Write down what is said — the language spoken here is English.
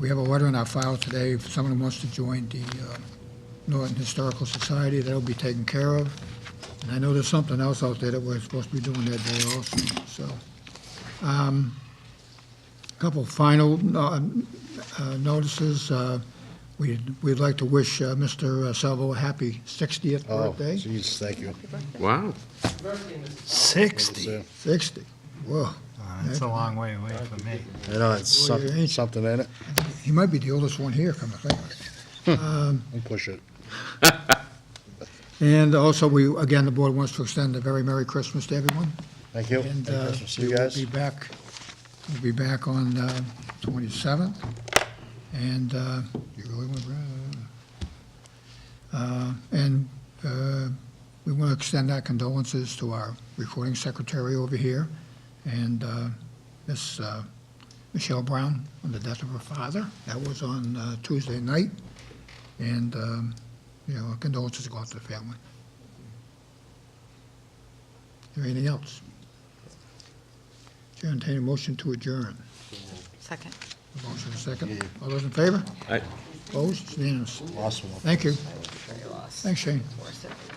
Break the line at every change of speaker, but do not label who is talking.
We have a letter in our file today, if someone wants to join the uh, Norton Historical Society, that'll be taken care of. And I know there's something else out there that we're supposed to be doing that day also, so. Um, Couple final uh, uh, notices. Uh, We'd we'd like to wish uh, Mr. Salvo a happy 60th
Oh,
birthday.
jeez, thank you.
Wow.
60?
60, whoa.
That's a long way away from me.
I know, it's
Well, you
something,
ain't-
something in it.
He might be the oldest one here, come to think of it.
I'll push it.
And also, we, again, the board wants to extend a very Merry Christmas to everyone.
Thank you.
And
Merry
uh,
Christmas to
we
you
will
guys.
be back, we'll be back on uh, 27th. And uh, you really want to, and uh, we want to extend our condolences to our recording secretary over here and uh, Miss uh, Michelle Brown on the death of her father. That was on uh, Tuesday night. And, um, you know, our condolences go out to the family. Is there anything else? Chair, entertain a motion to adjourn.
Second.
A Motion and a second. All those in favor?
Aye.
Opposed? It's unanimous.
Awesome.
Thank you.
Very lost.
Thanks, Shane.
Worth it.